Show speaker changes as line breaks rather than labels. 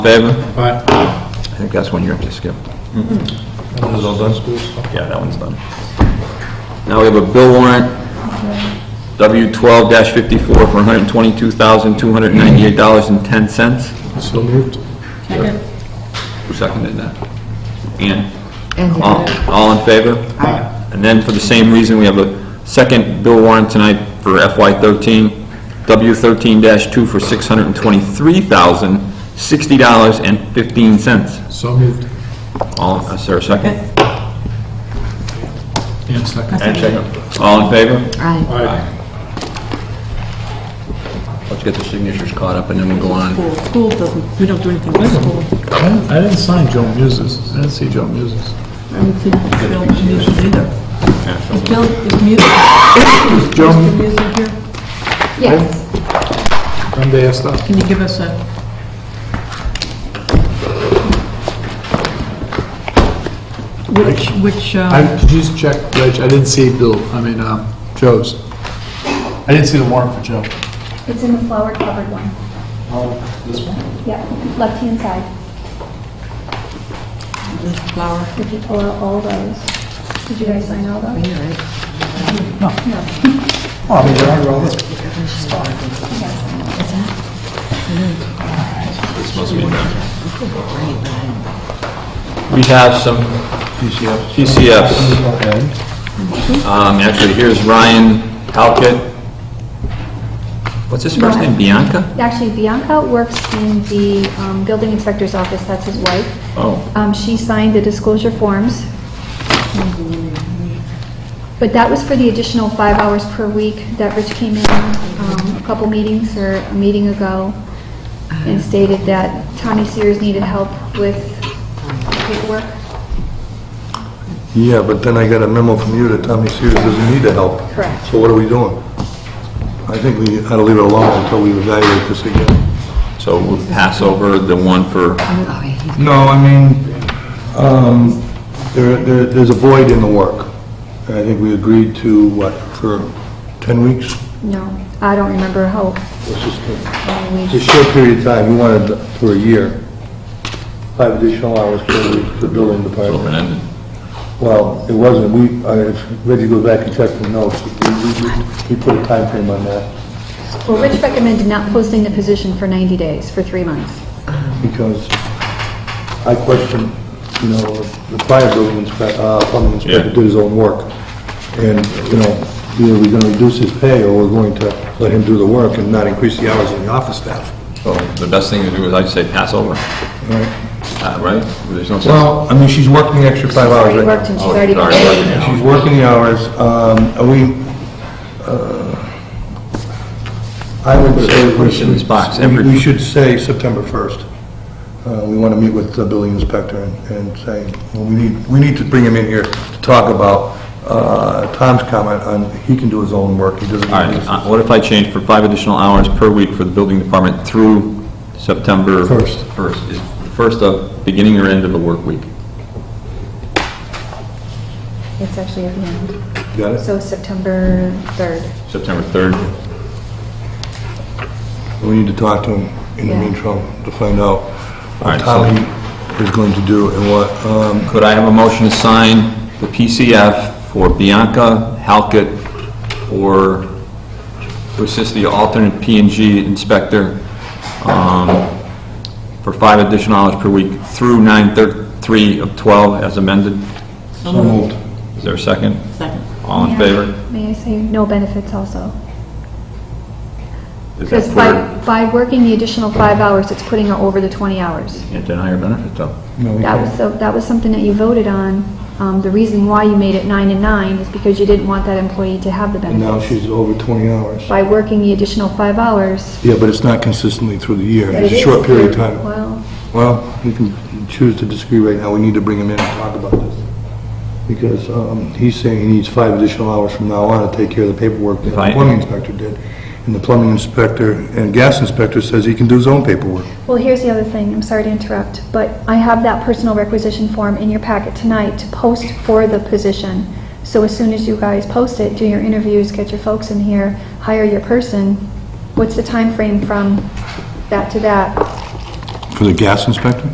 Favor?
Aye.
I think that's one you're up to skip.
And this
all
is
done?
school stuff.
Yeah, that one's done. Now we have a bill warrant, W12-54 for $122,298.10.
So moved.
Who seconded that? Ian? All all in favor? Aye. And then for the same reason, we have a second bill warrant tonight for FY13, W13-2 for $623,060.15.
So moved.
All, is there a second?
And second.
And second. All in favor?
Aye.
Aye.
Let's get the signatures caught up and then we'll go on.
School, school doesn't, we don't do anything with school.
I didn't- I didn't sign Joe Muses. I didn't see Joe Muses.
I don't think Phil Musil either. Is Phil, is Musil,
Joe,
is Musil here?
Yes,
Monday I stopped.
Can you give us a, which, which,
I,
uh,
could you just check, Reg, I didn't see Bill, I mean, um, Joe's. I didn't see the warrant for Joe.
it's in the flower covered one.
Oh, this one?
Yeah, left-hand side,
this flower?
if you pull out all those. Did you guys sign all those?
Yeah, right.
Oh, I mean, they're under all this.
We have some PCFs. Um, actually, here's Ryan Halkett. What's his first name, Bianca?
Actually, Bianca works in the um, building inspector's office, that's his wife.
Oh,
Um, She signed the disclosure forms. But that was for the additional five hours per week that Rich came in um, a couple meetings or a meeting ago and stated that Tommy Sears needed help with paperwork.
Yeah, but then I got a memo from you that Tommy Sears doesn't need the help.
Correct.
So what are we doing? I think we ought to leave it alone until we evaluate this again.
so we'll pass over the one for, oh,
No, I mean, um, there, there- there's a void in the work. And I think we agreed to, what, for 10 weeks?
No, I don't remember how
It's just a-
long
it's a
we,
short period of time, we wanted for a year. Five additional hours per week for building department.
over and ended.
Well, it wasn't, we, I- if Reggie goes back and checks the notes, we, we- we, we put a time frame on that,
well, Rich recommended not posting the position for 90 days, for three months.
because I question, you know, the fire building inspector, uh, plumbing inspector
Yeah.
did his own work, and, you know, either we're gonna reduce his pay, or we're going to let him do the work and not increase the hours of the office staff.
So oh, the best thing to do is I'd say pass over,
Right.
Uh, right? There's no sense-
Well, I mean, she's working the extra five hours
Already
right now.
worked and she's
Oh,
already
sorry.
paid.
She's working the hours, um, are we, uh, I would say...
Put it in this box,
we-
every-
We should say September 1st. Uh, We want to meet with the building inspector and- and say, well, we need, we need to bring him in here to talk about uh, Tom's comment on, he can do his own work, he doesn't...
All right, uh, what if I change for five additional hours per week for the building department through September?
First.
First, is the first of, beginning or end of the work week?
It's actually at the end,
Got it?
so September 3rd.
September 3rd?
We need to talk to him in the
Yeah.
meantime to find out
All
what
right, so-
Tom is going to do and what, um,
Could I have a motion to sign the PCF for Bianca Halkett or to assist the alternate P and G inspector um, for five additional hours per week through 9/3 of 12 as amended?
So moved.
Is there a second?
Second.
All in favor?
May I say, no benefits also.
Is that
Because by, by working the additional five hours, it's putting her over the 20 hours.
Can't deny her benefit, though.
no, we
That
can't.
was, so- that was something that you voted on. Um, The reason why you made it nine and nine is because you didn't want that employee to have the
and now
benefits.
she's over 20 hours.
By working the additional five hours,
Yeah, but it's not consistently through the year.
But
It's a
it is
short period of
through-
time.
Well,
Well, you can choose to disagree right now. We need to bring him in and talk about this. Because um, he's saying he needs five additional hours from now on to take care of the paperwork that
If I-
the plumbing inspector did. And the plumbing inspector and gas inspector says he can do his own paperwork.
well, here's the other thing, I'm sorry to interrupt, but I have that personal requisition form in your packet tonight to post for the position. So as soon as you guys post it, do your interviews, get your folks in here, hire your person, what's the time frame from that to that?
For the gas inspector?